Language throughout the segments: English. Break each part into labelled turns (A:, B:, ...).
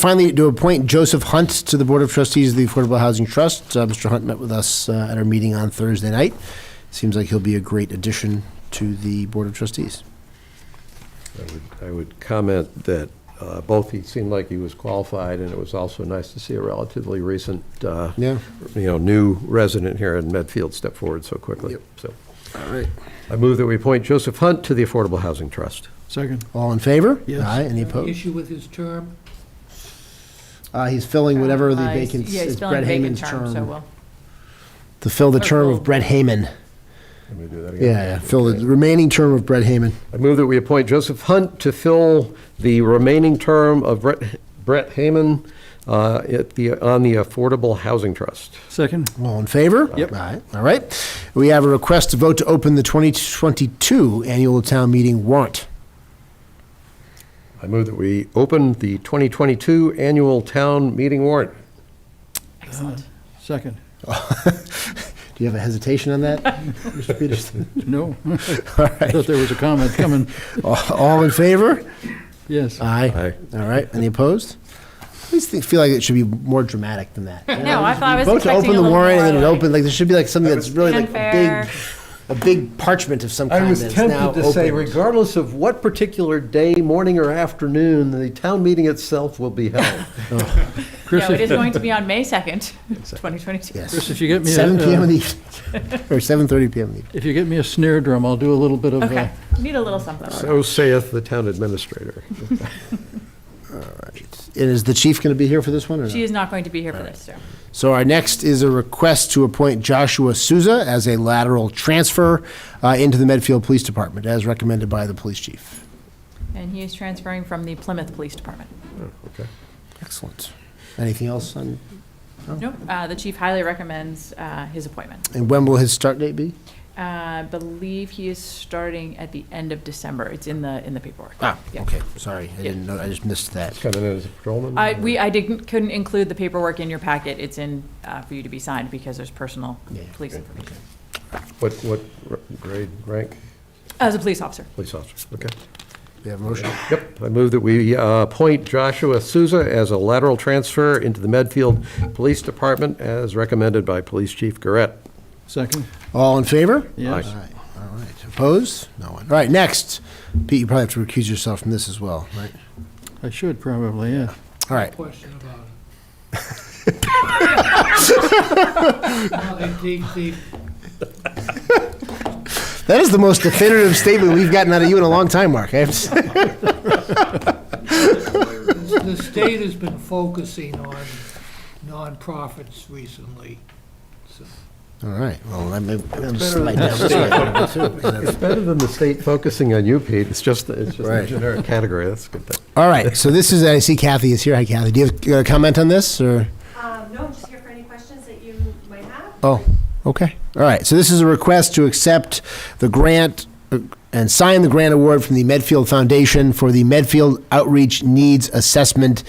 A: Finally, to appoint Joseph Hunt to the Board of Trustees of the Affordable Housing Trust. Uh, Mr. Hunt met with us uh, at our meeting on Thursday night. Seems like he'll be a great addition to the Board of Trustees.
B: I would- I would comment that uh, both, he seemed like he was qualified, and it was also nice to see a relatively recent, uh,
A: Yeah.
B: you know, new resident here in Medfield step forward so quickly.
A: Yep.
B: So
A: All right.
B: I move that we appoint Joseph Hunt to the Affordable Housing Trust.
C: Second.
A: All in favor?
C: Yes.
A: Aye. Any
D: Any
A: opposed?
D: Issue with his term?
A: Uh, he's filling whatever the
E: Uh, he's-
A: vacant,
E: Yeah, he's
A: it's
E: filling
A: Brett
E: a vacant
A: Hayman's
E: term, so
A: term.
E: we'll,
A: To fill the term of Brett Hayman.
B: Let me do that
A: Yeah,
B: again.
A: yeah, fill the remaining term of Brett Hayman.
B: I move that we appoint Joseph Hunt to fill the remaining term of Brett Brett Hayman uh, at the, on the Affordable Housing Trust.
C: Second.
A: All in favor?
C: Yep.
A: All right, all right. We have a request to vote to open the 2022 annual town meeting warrant.
B: I move that we open the 2022 Annual Town Meeting warrant.
E: excellent.
C: Second.
A: Do you have a hesitation on that, Mr. Peterson?
C: No. I
A: All
C: thought
A: right.
C: there was a comment coming.
A: All- All in favor? Uh,
C: Yes.
A: Aye. All right, any opposed? I always think- feel like it should be more dramatic than that.
E: No, I thought I was
A: Vote to open
E: expecting a
A: the
E: little
A: warrant and then it
E: more, like-
A: opened, like, there should be like something that's really like a
E: Unfair.
A: big, a big parchment of some
B: I
A: kind
B: was
A: that's now
B: tempted to say,
A: opened.
B: regardless of what particular day, morning or afternoon, the town meeting itself will be held.
C: Chris,
E: No, it is
C: if-
E: going to be on May 2nd, 2022.
A: Yes.
C: Chris, if you get me, a-
A: Seven PM in
C: uh,
A: the evening, or 7:30 PM in the evening.
C: if you get me a snare drum, I'll do a little bit of, uh,
E: Okay, need a little something.
B: So saith the town administrator.
A: And is the chief going to be here for this one or
E: She
A: not?
E: is not going to be here for this, so.
A: So our next is a request to appoint Joshua Souza as a lateral transfer uh, into the Medfield Police Department, as recommended by the police chief.
E: And he is transferring from the Plymouth Police Department.
B: Okay.
A: Excellent. Anything else on, Oh.
E: Nope, uh, the chief highly recommends uh, his appointment.
A: and when will his start date be?
E: I believe he is starting at the end of December. It's in the, in the paperwork. Yeah.
A: Ah, Okay, sorry, I didn't know, I just missed that.
B: Coming in as a patrolman?
E: I, we, I didn't, couldn't include the paperwork in your packet. It's in, uh, for you to be signed because there's personal
A: Yeah,
E: police information.
B: What, what r- grade, rank?
E: As a police officer.
B: Police officer, okay.
A: We have a motion.
B: Yep, I move that we uh, appoint Joshua Souza as a lateral transfer into the Medfield Police Department as recommended by Police Chief Garrett.
C: second.
A: All in favor?
C: Yes.
A: All right, all right. Opposed? No one. All right, next. Pete, you probably have to recuse yourself from this as well, right?
C: I should probably, yeah.
A: All right,
D: Question about it. Well, the- the-
A: that is the most definitive statement we've gotten out of you in a long time, Mark. I have to say.
D: the- The state has been focusing on nonprofits recently, so.
A: All right, well, I'm going to slide down this way.
B: It's better than the state focusing on you, Pete. It's just, it's just a
A: Right.
B: generic category. That's a good thing.
A: All right, so this is, I see Kathy is here. Hi, Kathy. Do you have a comment on this, or?
F: Um, no, I'm just here for any questions that you might have.
A: Oh, okay. All right, so this is a request to accept the grant uh, and sign the grant award from the Medfield Foundation for the Medfield Outreach Needs Assessment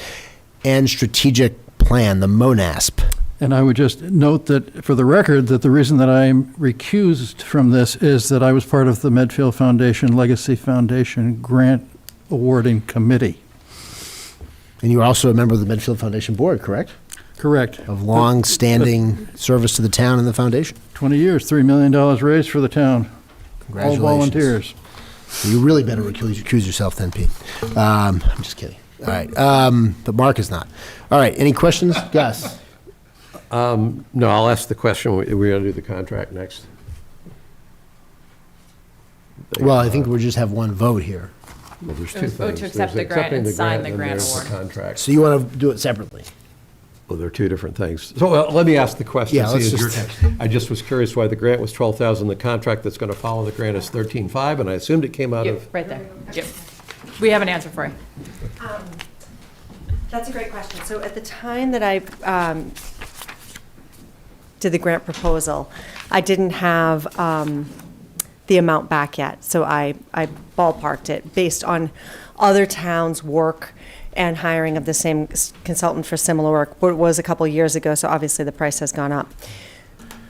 A: and Strategic Plan, the MONASP.
C: And I would just note that, for the record, that the reason that I'm recused from this is that I was part of the Medfield Foundation Legacy Foundation Grant Awarding Committee.
A: And you're also a member of the Medfield Foundation Board, correct?
C: Correct.
A: Of long-standing service to the town and the foundation.
C: 20 years, $3 million raised for the town. All
A: Congratulations.
C: volunteers.
A: You really better recuse, recuse yourself then, Pete. Um, I'm just kidding. All right, um, but Mark is not. All right, any questions? Gus?
B: No, I'll ask the question. We- We're going to do the contract next.
A: Well, I think we just have one vote here.
B: Well, there's two
E: It was vote to
B: things. There's
E: accept the grant
B: accepting
E: and
B: the
E: sign
B: grant
E: the grant
B: and there's the
E: award.
B: Contract.
A: So you want to do it separately?
B: Well, they're two different things. So uh, let me ask the question.
A: Yeah, let's
B: See, is your-
A: just-
B: I just was curious why the grant was 12,000. The contract that's going to follow the grant is 13.5, and I assumed it came out of.
E: Yep, right there. Yep. We have an answer for you.
F: Um, That's a great question. So at the time that I um, did the grant proposal, I didn't have um, the amount back yet. So I, I ballparked it based on other towns' work and hiring of the same consultant for similar work. But it was a couple years ago, so obviously the price has gone up.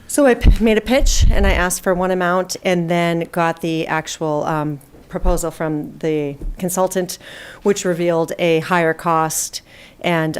F: So I p- made a pitch and I asked for one amount and then got the actual um, proposal from the consultant, which revealed a higher cost and